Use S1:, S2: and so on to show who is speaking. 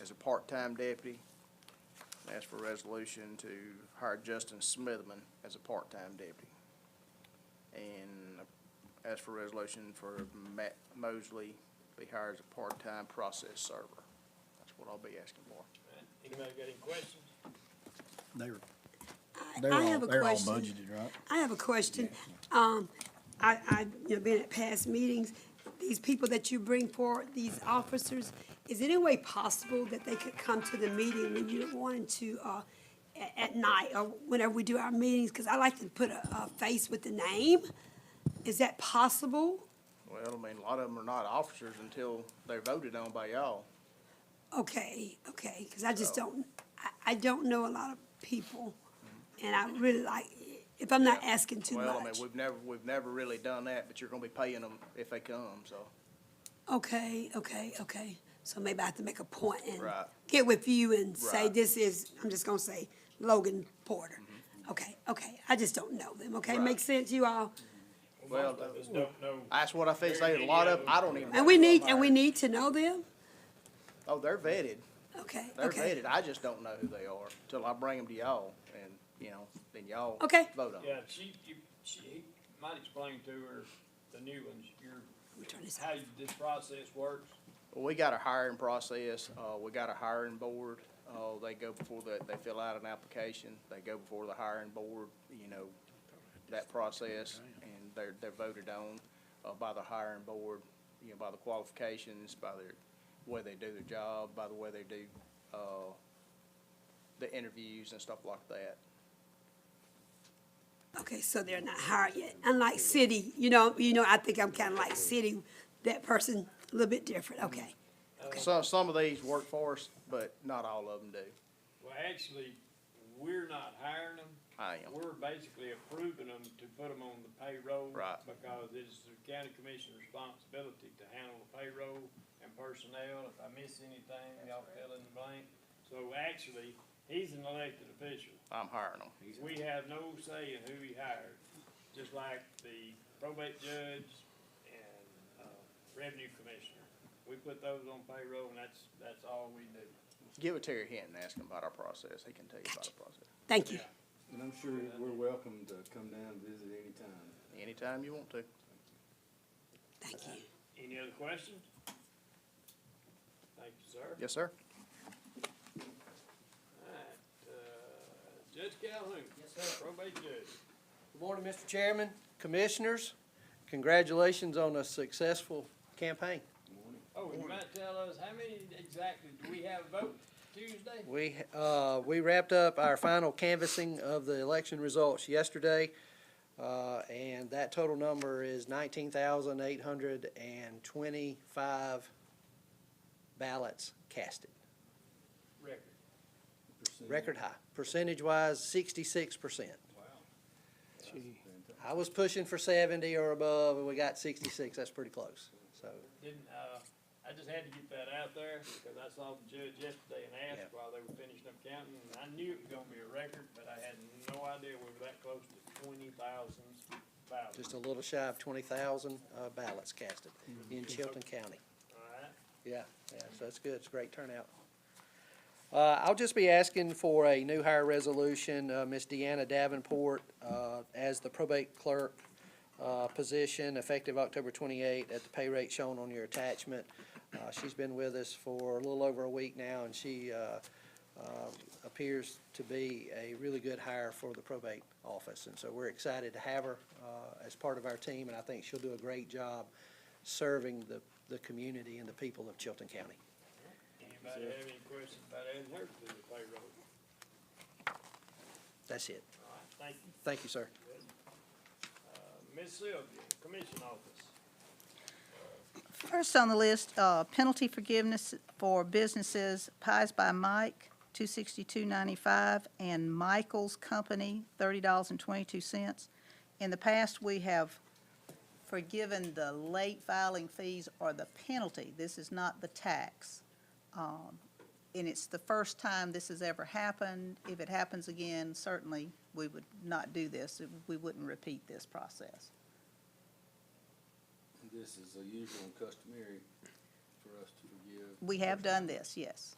S1: as a part-time deputy. And ask for a resolution to hire Justin Smithman as a part-time deputy. And ask for a resolution for Matt Mosley be hired as a part-time process server. That's what I'll be asking for.
S2: Anybody got any questions?
S3: They were,
S4: I-
S3: they were
S4: I
S3: all,
S4: have a
S3: they were all
S4: question.
S3: budgeted, right?
S4: I have a question. Um, I, I, you know, been at past meetings, these people that you bring forward, these officers, is it any way possible that they could come to the meeting when you wanted to, uh, at, at night or whenever we do our meetings? Cause I like to put a, a face with the name. Is that possible?
S1: Well, I mean, a lot of them are not officers until they're voted on by y'all.
S4: Okay, okay, because I just don't, I, I don't know a lot of people. And I really like, if I'm not asking too
S1: Well, I mean,
S4: much.
S1: we've never, we've never really done that, but you're gonna be paying them if they come, so.
S4: Okay, okay, okay. So maybe I have to make a point and
S1: Right.
S4: get with you and say,
S1: Right.
S4: this is, I'm just gonna say Logan Porter. Okay, okay, I just don't know them, okay?
S1: Mm-hmm. Right.
S4: Makes sense, you all?
S1: Well, uh,
S2: Most of us don't know.
S1: that's what I think, say, a lot of, I don't even.
S4: And we need, and we need to know them?
S1: Oh, they're vetted,
S4: Okay,
S1: they're
S4: okay.
S1: vetted, I just don't know who they are till I bring them to y'all, and, you know, then y'all.
S4: Okay.
S1: Vote on
S2: Yeah,
S1: them.
S2: she, you, she, he might explain to her the new ones, your,
S4: Let me turn this
S2: how
S4: off.
S2: you- this process works.
S1: We got a hiring process, uh, we got a hiring board, uh, they go before the, they fill out an application, they go before the hiring board, you know, that process, and they're, they're voted on, uh, by the hiring board, you know, by the qualifications, by their, way they do their job, by the way they do, uh, the interviews and stuff like that.
S4: Okay, so they're not hired yet. Unlike city, you know, you know, I think I'm kinda like city, that person, a little bit different, okay?
S1: Some, some of these work for us, but not all of them do.
S2: Well, actually, we're not hiring them.
S1: I am.
S2: We're basically approving them to put them on the payroll.
S1: Right.
S2: Because it's the county commission's responsibility to handle the payroll and personnel. If I miss anything, y'all fill in the blank. So actually, he's an elected official.
S1: I'm hiring them.
S2: We have no say in who he hired, just like the probate judge and, uh, revenue commissioner. We put those on payroll and that's, that's all we do.
S1: Give it to your hint and ask him about our process. He can tell you about
S4: Gotcha.
S1: our process.
S4: Thank you.
S5: And I'm sure we're welcome to come down and visit anytime.
S1: Anytime you want to.
S4: Thank you.
S2: Any other questions? Thank you, sir.
S1: Yes, sir.
S2: Alright, uh, Judge Calhoun. Yes, sir. Probate judge.
S6: Good morning, Mr. Chairman, Commissioners. Congratulations on a successful campaign.
S2: Oh, you might tell us, how many exactly, do we have a vote Tuesday?
S6: We, uh, we wrapped up our final canvassing of the election results yesterday, uh, and that total number is nineteen thousand eight hundred and twenty-five ballots casted.
S2: Record.
S6: Record high. Percentage-wise, sixty-six percent.
S2: Wow.
S6: I was pushing for seventy or above, and we got sixty-six. That's pretty close, so.
S2: Didn't, uh, I just had to get that out there, because I saw the judge yesterday and
S6: Yeah.
S2: asked while they were finishing up counting, and I knew it was gonna be a record, but I had no idea we were that close to twenty thousand
S6: just
S2: ballots.
S6: a little shy of twenty thousand, uh, ballots casted in Chilton County.
S2: Alright,
S6: Yeah, yeah, so that's good, it's a great turnout. Uh, I'll just be asking for a new hire resolution, uh, Ms. Deanna Davenport, uh, as the probate clerk, uh, position effective October twenty-eighth at the pay rate shown on your attachment. Uh, she's been with us for a little over a week now, and she, uh, um, appears to be a really good hire for the probate office. And so we're excited to have her uh, as part of our team, and I think she'll do a great job serving the, the community and the people of Chilton County.
S2: anybody have any questions about adding her to the payroll?
S6: That's it.
S2: Alright, thank you.
S6: Thank you, sir.
S2: Uh, Ms. Sylvia, Commission Office.
S7: First on the list, uh, penalty forgiveness for businesses Pies by Mike, two sixty-two ninety-five, and Michael's Company, thirty dollars and twenty-two cents. In the past, we have forgiven the late filing fees or the penalty. This is not the tax. Um, And it's the first time this has ever happened. If it happens again, certainly, we would not do this. We wouldn't repeat this process.
S5: This is a usual and customary for us to forgive.
S7: We have done this, yes.